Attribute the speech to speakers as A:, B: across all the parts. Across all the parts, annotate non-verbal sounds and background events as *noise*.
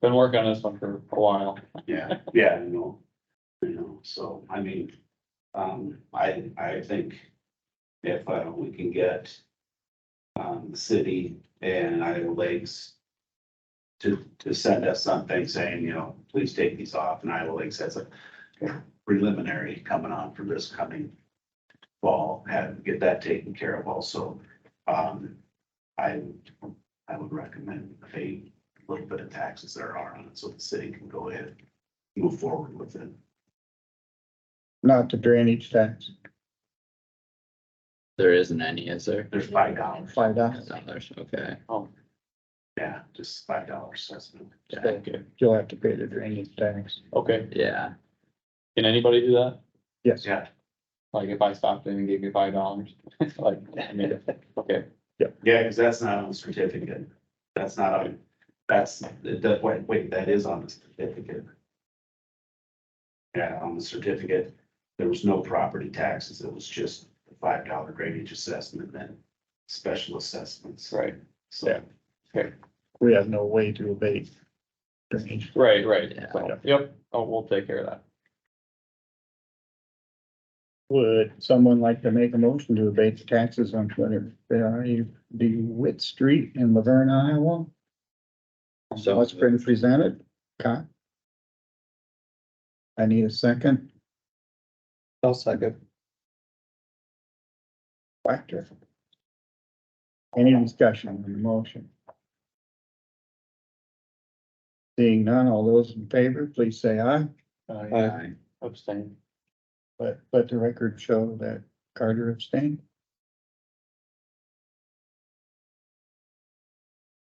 A: Been working on this one for a while.
B: Yeah, yeah, I know. You know, so, I mean, um, I, I think if uh, we can get um, the city and Iowa Lakes to, to send us something saying, you know, please take these off, and Iowa Lakes has a preliminary coming on for this coming fall, and get that taken care of also. Um, I, I would recommend pay a little bit of taxes there are on it, so the city can go ahead move forward with it.
C: not the drainage tax,
D: There isn't any, is there?
B: There's five dollars,
C: five dollars.
D: Dollars, okay.
B: yeah, just five dollars assessment.
D: Yeah.
C: Thank you. You'll have to pay the drainage tax.
A: Okay,
D: Yeah,
A: can anybody do that?
C: Yes,
B: Yeah,
A: Like if I stopped in and gave you five dollars, *laughs* like, I mean,
D: *laughs*
A: okay,
B: yeah, because that's not on the certificate. That's not on, that's, that, wait, wait, that is on the certificate. Yeah, on the certificate, there was no property taxes. It was just the five dollar drainage assessment and special assessments.
A: right,
B: So,
C: we have no way to abate drainage.
A: right, right.
D: Yeah.
A: So, Yep, oh, we'll take care of that.
C: Would someone like to make a motion to abate the taxes on Twitter? The Witt Street in Laverne, Iowa?
D: So-
C: What's been presented? Okay. I need a second.
A: I'll second.
C: Whacker. Any discussion on the motion? Seeing none, all those in favor, please say aye.
D: uh,
A: Aye. Abstain.
C: But let the record show that Carter abstained.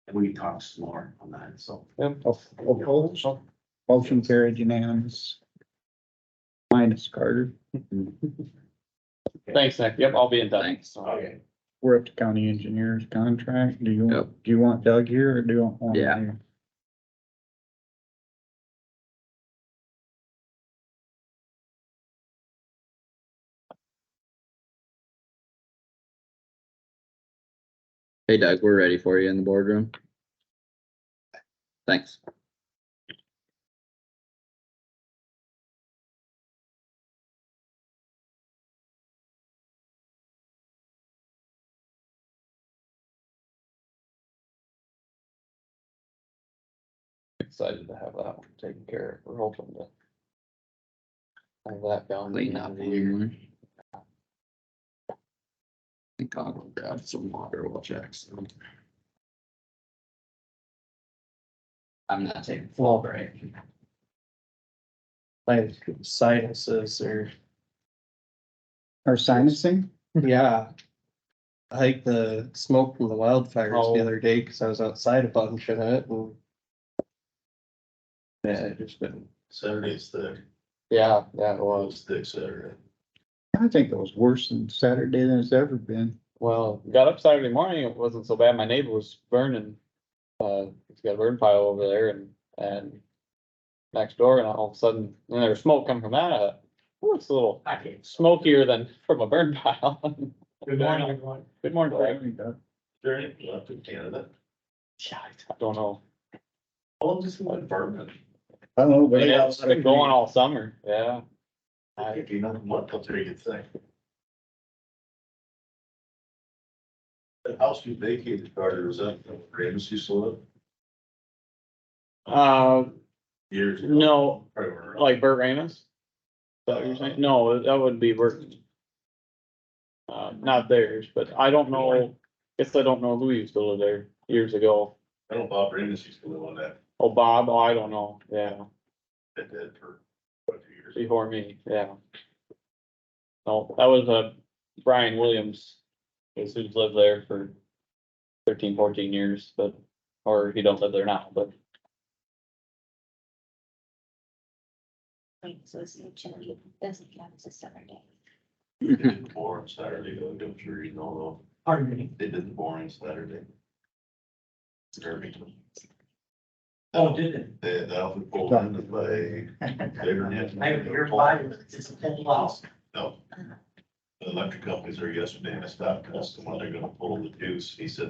B: and we can talk some more on that, so.
A: Yep.
C: Opposed? Oh, Motion carried unanimous. Minus Carter.
A: Thanks, Nick. Yep, I'll be in touch.
D: Thanks.
B: Okay.
C: We're up to county engineer's contract. Do you,
D: Yep.
C: do you want Doug here or do you want?
D: Yeah. Hey Doug, we're ready for you in the boardroom. Thanks.
A: Excited to have that one taken care of. We're hoping to. Have that down.
D: Clean up here. I think I'll go grab some water while Jack's. I'm not taking fall break.
E: like sinuses or,
C: Or sinusing?
E: yeah. I think the smoke from the wildfires
A: Oh.
E: the other day, cause I was outside a bunch of it and. Yeah, it just been,
B: Saturday's the,
A: Yeah, yeah, it was.
B: the Saturday.
C: I think it was worse than Saturday than it's ever been.
A: Well, got up Saturday morning, it wasn't so bad. My neighbor was burning, uh, he's got a burn pile over there and, and next door and all of a sudden, and there was smoke coming from that. uh, Ooh, it's a little
B: I can't.
A: smokier than *laughs* from a burn pile. *laughs*
F: Good morning, everyone.
A: Good morning, Frank.
F: Journey left in Canada.
A: Yeah, I don't know.
F: All of this in my apartment.
C: I don't know. but it
A: It's
C: was-
A: been going all summer, yeah.
F: I
A: I-
F: think another month, I'll tell you a good thing. The house we vacated, Carter, was up, Ramsey sold
A: Uh,
F: it years. ago.
A: no,
F: Probably were around.
A: like Bert Ramus? Is that what you're saying? No, that would be Bert. Uh, not theirs, but I don't know, guess I don't know who used to live there years ago.
F: I don't know Bob Ramsey used to live on that,
A: Oh, Bob, oh, I don't know, yeah,
F: that did for quite a few
A: *laughs*
F: years.
A: before me, yeah. No, that was, uh, Brian Williams, who's who's lived there for 13, 14 years, but, or he don't live there now, but
G: Right, so it's no chili, doesn't count as a summer day.
F: They did the boring Saturday, though, I'm sure you know,
E: pardon me,
F: though. they did the boring Saturday. Irving.
H: Oh, did it?
F: They had the Alpha pulled in to play. *laughs* They were in-
H: I hear five, it's a full house.
F: No. The electric companies there yesterday and I stopped, and asked them when they're gonna pull the deuce. He said